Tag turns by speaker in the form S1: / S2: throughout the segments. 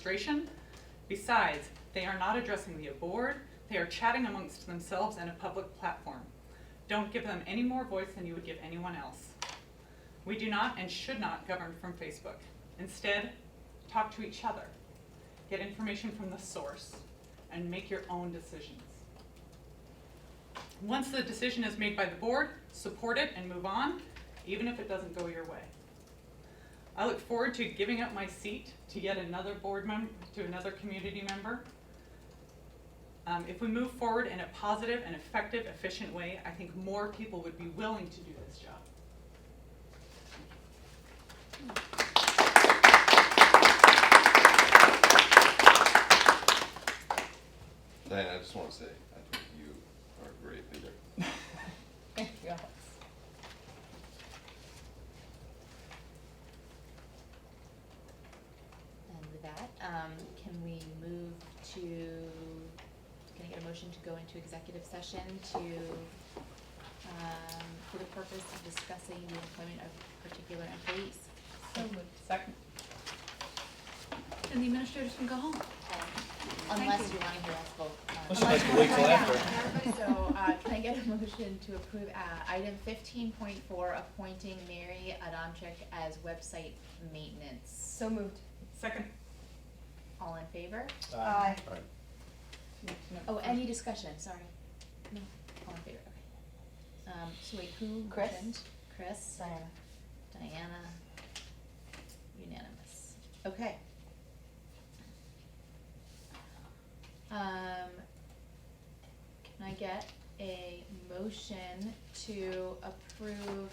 S1: frustration. Besides, they are not addressing the board, they are chatting amongst themselves in a public platform. Don't give them any more voice than you would give anyone else. We do not and should not govern from Facebook. Instead, talk to each other, get information from the source, and make your own decisions. Once the decision is made by the board, support it and move on, even if it doesn't go your way. I look forward to giving up my seat to yet another board member, to another community member. Um, if we move forward in a positive and effective, efficient way, I think more people would be willing to do this job.
S2: Diana, I just want to say, I think you are a great leader.
S3: Thank you, Alex.
S4: And with that, um, can we move to, can I get a motion to go into executive session to, um, for the purpose of discussing the employment of particular employees?
S3: So moved. Second.
S5: And the administrators can go home.
S4: Unless you wanna hear us vote. uh,
S6: Unless you'd like to wait till
S4: Yeah. So, uh, can I get a motion to approve, uh, item fifteen point four, appointing Mary Adamczyk as website maintenance?
S3: So moved.
S1: Second.
S4: All in favor?
S3: Aye.
S6: Aye.
S4: Oh, any discussion, sorry. No, all in favor, okay. Um, so wait, who?
S3: Chris.
S4: motioned? Chris, Diana, unanimous, okay. Um, can I get a motion to approve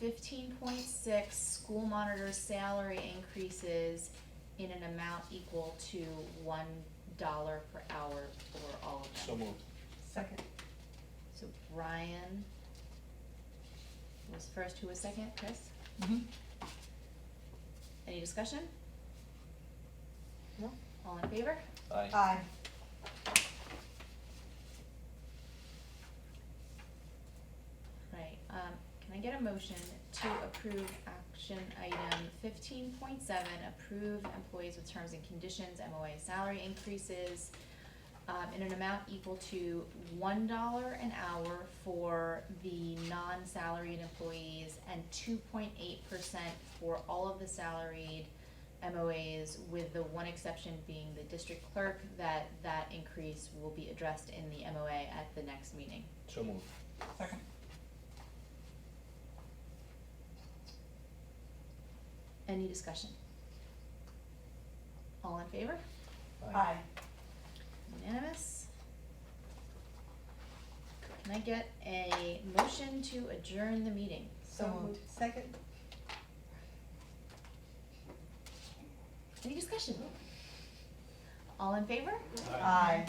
S4: fifteen point six school monitor salary increases in an amount equal to one dollar per hour for all of them?
S6: So moved.
S3: Second.
S4: So Brian was first, who was second, Chris?
S3: Mm-hmm.
S4: Any discussion? No. All in favor?
S6: Aye.
S3: Aye.
S4: Right, um, can I get a motion to approve action item fifteen point seven, approve employees with terms and conditions, MOA salary increases um, in an amount equal to one dollar an hour for the non-salaried employees and two point eight percent for all of the salaried MOAs, with the one exception being the district clerk, that that increase will be addressed in the MOA at the next meeting.
S6: So moved.
S3: Second.
S4: Any discussion? All in favor?
S3: Aye.
S4: Unanimous? Can I get a motion to adjourn the meeting?
S3: So moved. Second.
S4: Any discussion? All in favor?
S3: Aye.